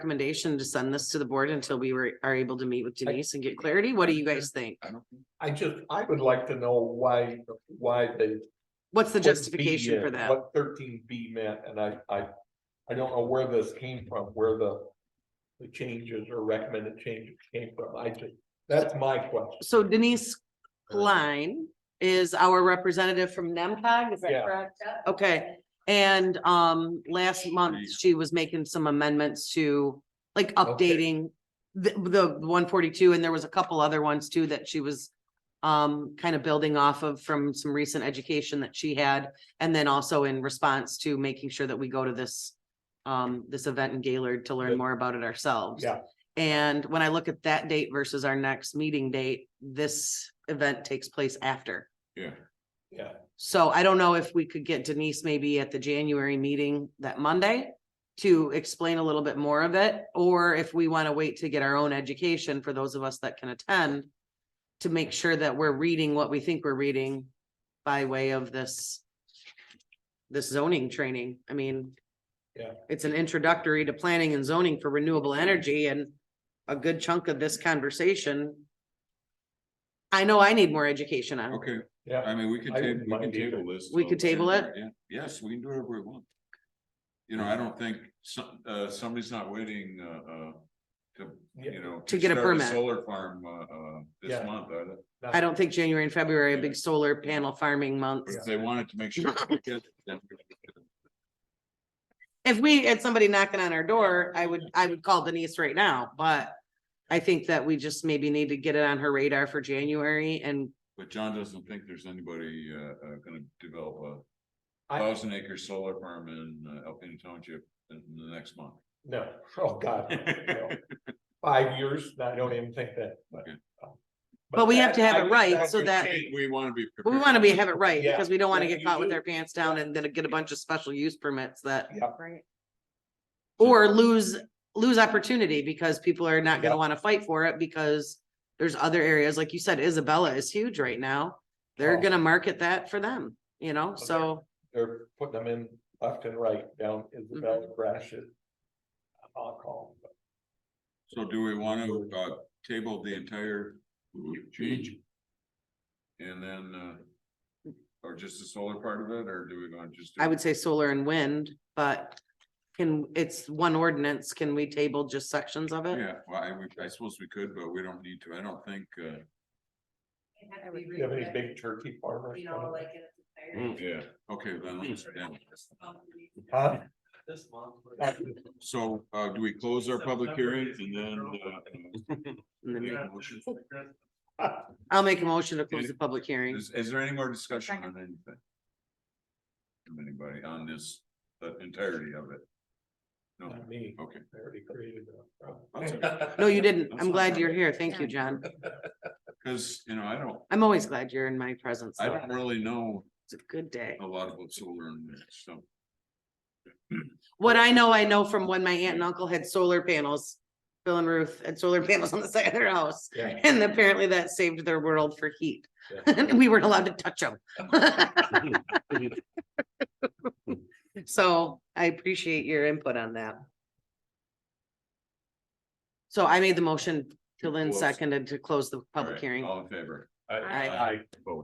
recommendation to send this to the board until we were, are able to meet with Denise and get clarity? What do you guys think? I just, I would like to know why, why they. What's the put B justification in, for that? uh, What thirteen B meant, and I, I, I don't know where this came from, where the. The changes or recommended changes came from, I just, that's my question. So Denise Klein is our representative from NEMCOG, is that Yeah. correct? Okay, and um, last month she was making some amendments to, like, Okay. updating the, the one forty-two, and there was a couple other ones too that she was um, kind of building off of from some recent education that she had, and then also in response to making sure that we go to this um, this event in Gaylord to learn Good. more about it ourselves. Yeah. And when I look at that date versus our next meeting date, this event takes place after. Yeah. Yeah. So I don't know if we could get Denise maybe at the January meeting that Monday to explain a little bit more of it, or if we want to wait to get our own education for those of us that can attend to make sure that we're reading what we think we're reading by way of this this zoning training. I mean, Yeah. it's an introductory to planning and zoning for renewable energy and a good chunk of this conversation. I know I need more education on it. Okay, Yeah, I mean, we could I ta- wouldn't we can mind either. table this. We till could table it? January, yeah. Yes, we can do whatever we want. You know, I don't think some, uh, somebody's not waiting, uh, uh, to, Yeah. you know. To get a start permit. Solar farm, uh, uh, this Yeah. month, are they? I don't think January and February, are big solar panel farming months. If they wanted to make sure. we get it, then we could. If we had somebody knocking on our door, I would, I would call Denise right now, but I think that we just maybe need to get it on her radar for January and But John doesn't think there's anybody, uh, uh, gonna develop a I- thousand acre solar farm in uh, Alpena Township in the next month. no, oh, God. no. Five years, I don't even think that, but. um, Okay. But we have to have I it think right, that's so a that- change. We wanna be. we prepared. want to be, have it right because we don't want to Yeah, get you caught with do. our pants down and then get a bunch of special use permits that Yeah, or lose, lose opportunity because people are not gonna Yeah. wanna fight for it because there's other areas, like you said, Isabella is huge right now. They're Oh. gonna market that for them, you know, Okay. so they're putting them in left and right down Isabella Mm-hmm. Grashit. I'll call. them, So do we want to, uh, table the entire change? And then, uh, or just the solar part of it, or do we want to just? do- I would say solar and wind, but can, it's one ordinance, can we table just sections of it? Yeah, well, I, would- I suppose we could, but we don't need to, I don't think, uh, but Do you have any big turkey farmers? You know, like. in the entire- yeah, okay, then, let's- yeah. Huh? This month. we're- so, uh, do we close our public hearings and then, uh, And then make we- a motion? I'll make a motion to close the public hearing. Is, is there any more discussion on anything? From anybody on this, the entirety of it? No, Not me, okay. I already created a problem. That's it. No, you didn't. I'm glad you're here. Thank you, John. Cause, you know, I don't, I'm always glad you're in my presence. I Oh. though. don't really know It's a good day. a lot about solar and stuff. What I know, I know from when my aunt and uncle had solar panels, Bill and Ruth had solar panels on the side of their house. Yeah. And apparently that saved their world for heat. Yeah. And we weren't allowed to touch them. So I appreciate your input on that. So I made the motion, till then Close. seconded to close the All public right, hearing. All in favor? I, Aye. I.